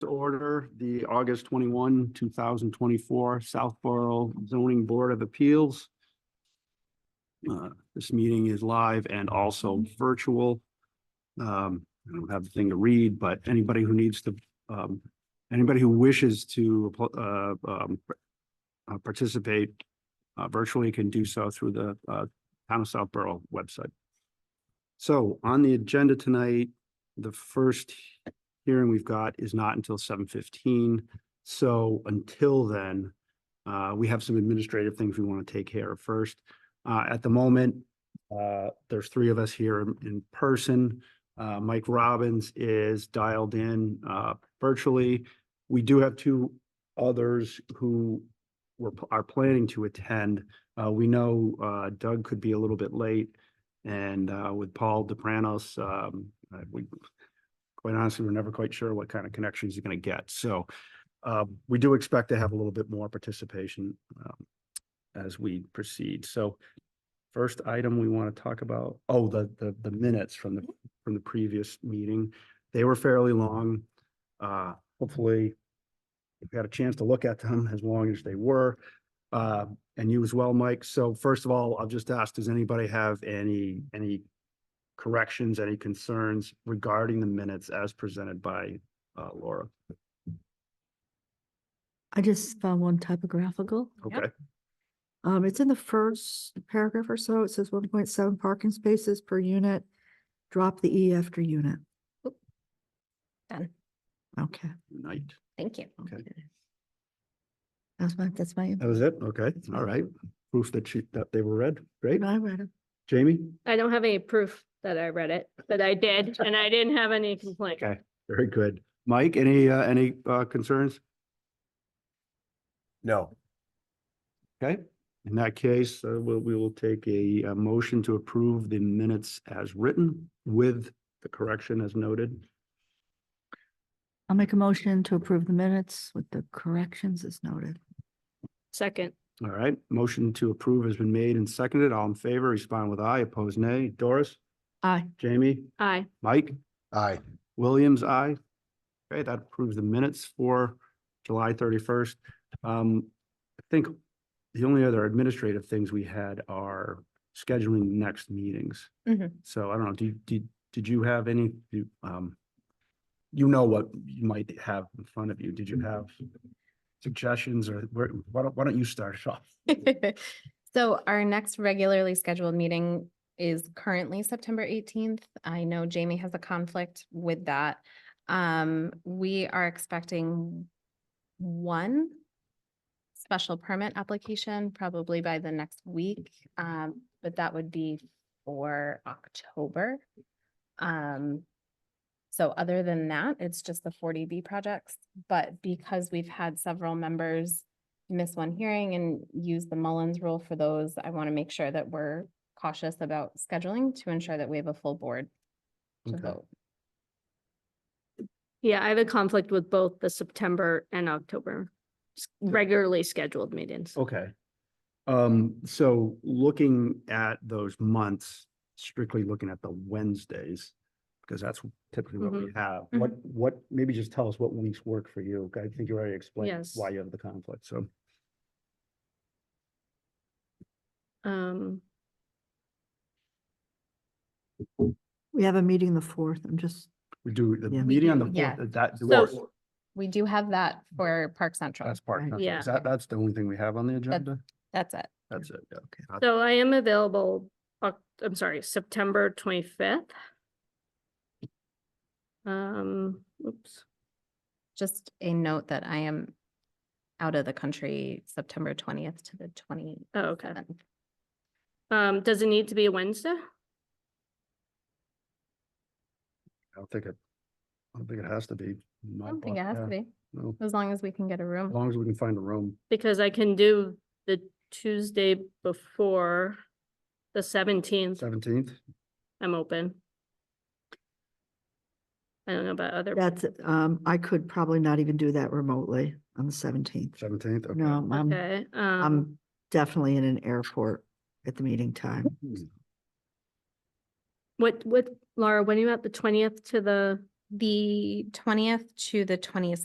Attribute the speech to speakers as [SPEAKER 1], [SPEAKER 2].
[SPEAKER 1] order the August twenty-one, two thousand twenty-four Southborough Zoning Board of Appeals. Uh, This meeting is live and also virtual. Um, I don't have the thing to read, but anybody who needs to, um, anybody who wishes to, uh, um, uh, participate uh, virtually can do so through the, uh, Town of Southborough website. So on the agenda tonight, the first hearing we've got is not until seven fifteen. So until then, uh, we have some administrative things we want to take care of first. Uh, at the moment, uh, there's three of us here in- in person. Uh, Mike Robbins is dialed in, uh, virtually. We do have two others who were, are planning to attend. Uh, we know, uh, Doug could be a little bit late. And, uh, with Paul DePranos, um, uh, we quite honestly, we're never quite sure what kind of connections you're gonna get, so uh, we do expect to have a little bit more participation um, as we proceed, so first item we want to talk about, oh, the, the, the minutes from the, from the previous meeting, they were fairly long. Uh, hopefully you've had a chance to look at them as long as they were, uh, and you as well, Mike, so first of all, I'll just ask, does anybody have any, any corrections, any concerns regarding the minutes as presented by uh, Laura?
[SPEAKER 2] I just found one typographical.
[SPEAKER 1] Okay,
[SPEAKER 2] Um, it's in the first paragraph or so. It says one point seven parking spaces per unit. Drop the E after unit.
[SPEAKER 3] Done.
[SPEAKER 2] Okay.
[SPEAKER 1] night.
[SPEAKER 3] Thank you.
[SPEAKER 1] Okay.
[SPEAKER 2] That's my, that's my,
[SPEAKER 1] That was it? Okay, all right. Proof that she, that they were read. Great.
[SPEAKER 2] I read it.
[SPEAKER 1] Jamie?
[SPEAKER 4] I don't have any proof that I read it, but I did, and I didn't have any complaint.
[SPEAKER 1] Okay. Very good. Mike, any, uh, any uh, concerns?
[SPEAKER 5] No,
[SPEAKER 1] Okay, in that case, uh, we'll, we will take a, uh motion to approve the minutes as written with the correction as noted.
[SPEAKER 2] I'll make a motion to approve the minutes with the corrections as noted.
[SPEAKER 4] Second,
[SPEAKER 1] All right, motion to approve has been made and seconded. All in favor, respond with aye, opposed nay. Doris?
[SPEAKER 2] Aye.
[SPEAKER 1] Jamie?
[SPEAKER 4] aye,
[SPEAKER 1] Mike?
[SPEAKER 5] aye,
[SPEAKER 1] Williams, aye. Okay, that approves the minutes for July thirty-first. Um, I think the only other administrative things we had are scheduling next meetings.
[SPEAKER 3] Mhm.
[SPEAKER 1] So I don't know, did, did, did you have any, you, um, you know what you might have in front of you. Did you have suggestions or where, why don't, why don't you start us off?
[SPEAKER 3] So our next regularly scheduled meeting is currently September eighteenth. I know Jamie has a conflict with that. Um, we are expecting one special permit application probably by the next week. Um, but that would be for October. Um, so other than that, it's just the forty B projects, but because we've had several members miss one hearing and use the Mullins rule for those, I want to make sure that we're cautious about scheduling to ensure that we have a full board to
[SPEAKER 1] Okay.
[SPEAKER 3] vote.
[SPEAKER 4] yeah, I have a conflict with both the September and October s- regularly scheduled meetings.
[SPEAKER 1] Okay. Um, so looking at those months, strictly looking at the Wednesdays, because that's typically what
[SPEAKER 3] Mm-hmm.
[SPEAKER 1] we have. What, what, maybe just tell us what weeks work for you. I think you already explained
[SPEAKER 4] Yes.
[SPEAKER 1] why you have the conflict, so.
[SPEAKER 4] Um,
[SPEAKER 2] We have a meeting the fourth. I'm just,
[SPEAKER 1] We do the
[SPEAKER 2] Yeah.
[SPEAKER 1] meeting on the
[SPEAKER 3] Yeah.
[SPEAKER 1] fourth, is that,
[SPEAKER 4] So-
[SPEAKER 3] We do have that for Park Central.
[SPEAKER 1] Mm. that's part,
[SPEAKER 2] Right.
[SPEAKER 1] of it.
[SPEAKER 4] Yeah.
[SPEAKER 1] Is that, that's the only thing we have on the agenda?
[SPEAKER 3] That's it.
[SPEAKER 1] That's it, yeah. Not-
[SPEAKER 4] so I am available, Oc- I'm sorry, September twenty-fifth. Um, oops,
[SPEAKER 3] Just a note that I am out of the country September twentieth to the twenty
[SPEAKER 4] oh, okay.
[SPEAKER 3] seventh.
[SPEAKER 4] Um, does it need to be a Wednesday?
[SPEAKER 1] I don't think it, I don't think it has to be.
[SPEAKER 3] I don't think it has to be,
[SPEAKER 1] No,
[SPEAKER 3] as long as we can get a
[SPEAKER 1] as
[SPEAKER 3] room.
[SPEAKER 1] long as we can find a room.
[SPEAKER 4] Because I can do the Tuesday before the seventeenth,
[SPEAKER 1] Seventeenth,
[SPEAKER 4] I'm open. I don't know about other,
[SPEAKER 2] that's, um, I could probably not even do that remotely on the seventeenth.
[SPEAKER 1] seventeenth, okay.
[SPEAKER 2] No, I'm,
[SPEAKER 4] okay, um,
[SPEAKER 2] I'm definitely in an airport at the meeting time.
[SPEAKER 1] Hmm.
[SPEAKER 4] what, what, Laura, when are you at the twentieth to the?
[SPEAKER 3] The twentieth to the twenty